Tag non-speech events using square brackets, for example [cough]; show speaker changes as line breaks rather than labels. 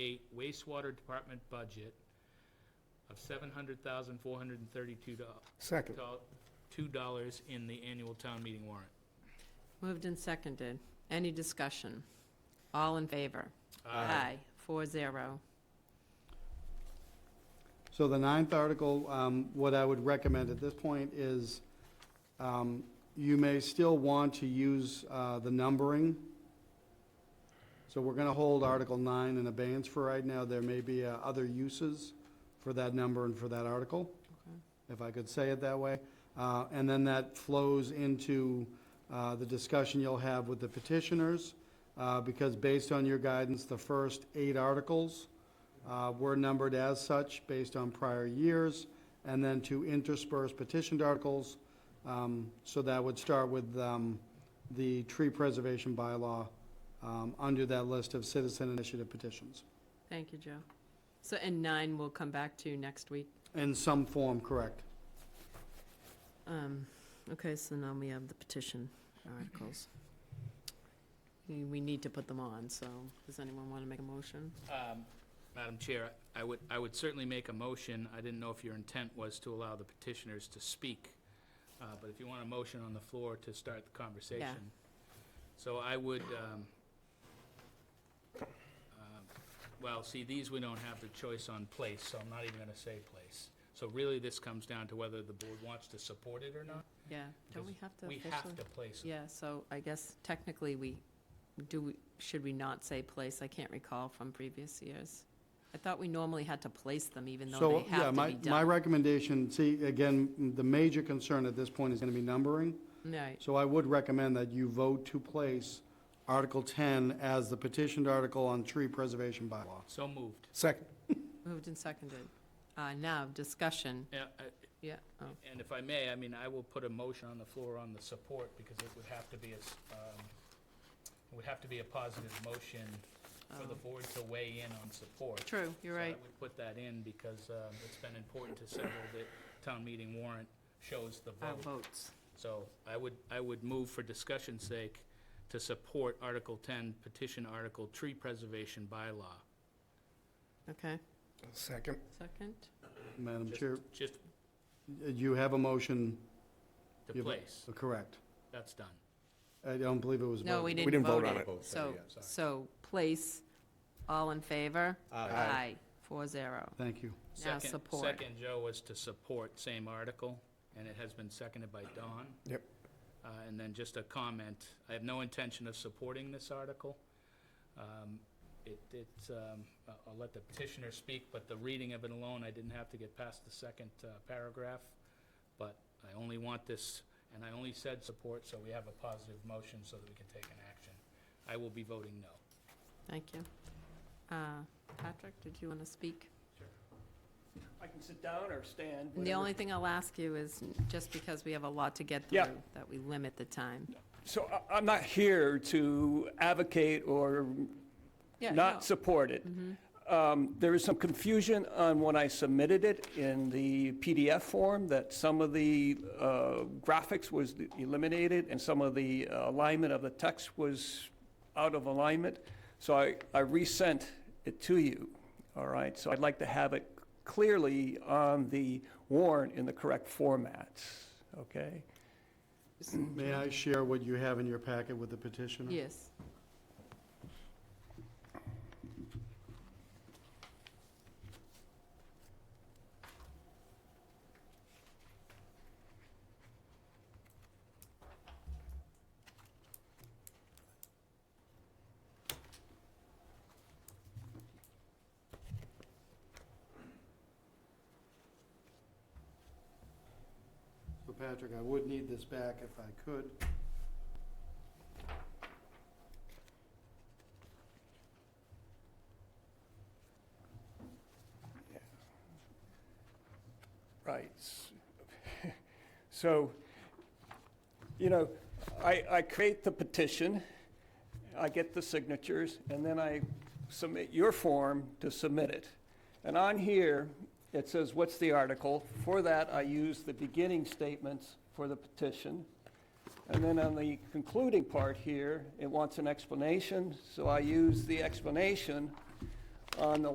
state wastewater department budget of seven hundred thousand, four hundred and thirty-two
Second.
two dollars in the annual town meeting warrant.
Moved and seconded. Any discussion? All in favor? Aye. Four zero.
So the ninth article, um, what I would recommend at this point is, um, you may still want to use, uh, the numbering. So we're gonna hold Article nine in abeyance for right now. There may be, uh, other uses for that number and for that article,
Okay.
if I could say it that way. Uh, and then that flows into, uh, the discussion you'll have with the petitioners, uh, because based on your guidance, the first eight articles, uh, were numbered as such based on prior years, and then to intersperse petitioned articles. Um, So that would start with um, the tree preservation bylaw um, under that list of citizen initiative petitions.
Thank you, Joe. So, and nine we'll come back to next week.
In some form, correct.
Um, Okay, so now we have the petition articles. We we need to put them on, so does anyone want to make a motion?
Um, Madam Chair, I would, I would certainly make a motion. I didn't know if your intent was to allow the petitioners to speak, uh, but if you want a motion on the floor to start the conversation. So I would, um, um, well, see, these we don't have the choice on place, so I'm not even gonna say place. So really, this comes down to whether the board wants to support it or not.
Yeah, don't we
Because
have to
We
officially?
have to place it.
Yeah, so I guess technically we, do, we- should we not say place? I can't recall from previous years. I thought we normally had to place them even though
So,
they
yeah,
have to
my,
be
my
done.
recommendation, see, again, the major concern at this point is going to be numbering.
Right,
So I would recommend that you vote to place Article 10 as the petitioned article on tree preservation bylaw.
So moved.
Second.
moved and seconded. Uh, Now, discussion,
Yeah, I-
yeah, oh,
And if I may, I mean, I will put a motion on the floor on the support, because it would have to be, a s- um, it would have to be a positive motion for the
Oh.
board to weigh in on support.
true, you're right.
So I would put that in, because um, it's been important to several that town meeting warrant shows the
Our
vote.
Uh, votes,
So I would, I would move for discussion's sake to support Article 10 petition article tree preservation bylaw.
okay,
Second.
second?
Madam
Just-
Chair,
Just
Uh, you have a motion,
to
You've-
place,
correct.
that's done.
I don't believe it was voted.
No, we didn't vote it. So, so place, all in favor? Aye, four zero.
Thank you.
Now
Second-
support.
Second, Joe, was to support, same article, and it has been seconded by Don.
Yep.
Uh, And then just a comment, I have no intention of supporting this article. Um, It, it's, um, I- I'll let the petitioner speak, but the reading of it alone, I didn't have to get past the second uh, paragraph. But I only want this, and I only said support, so we have a positive motion so that we can take an action. I will be voting no.
Thank you. Uh, Patrick, did you want to speak?
I can sit down or stand.
The
whatever.
only thing I'll ask you is, just because we have a lot to get
Yeah.
through, that we limit the time.
So I- I'm not here to advocate or
Yeah, no. Mm-hmm.
not support it. Um, There is some confusion on when I submitted it in the PDF form, that some of the uh, graphics was eliminated and some of the uh, alignment of the text was out of alignment. So I I resent it to you, all right? So I'd like to have it clearly on the warrant in the correct formats, okay?
May I share what you have in your packet with the petitioner?
Yes.
So Patrick, I would need this back if I could.
Right. [laughs] So, you know, I, I create the petition, I get the signatures, and then I submit your form to submit it. And on here, it says, what's the article? For that, I use the beginning statements for the petition. And then on the concluding part here, it wants an explanation, so I use the explanation on the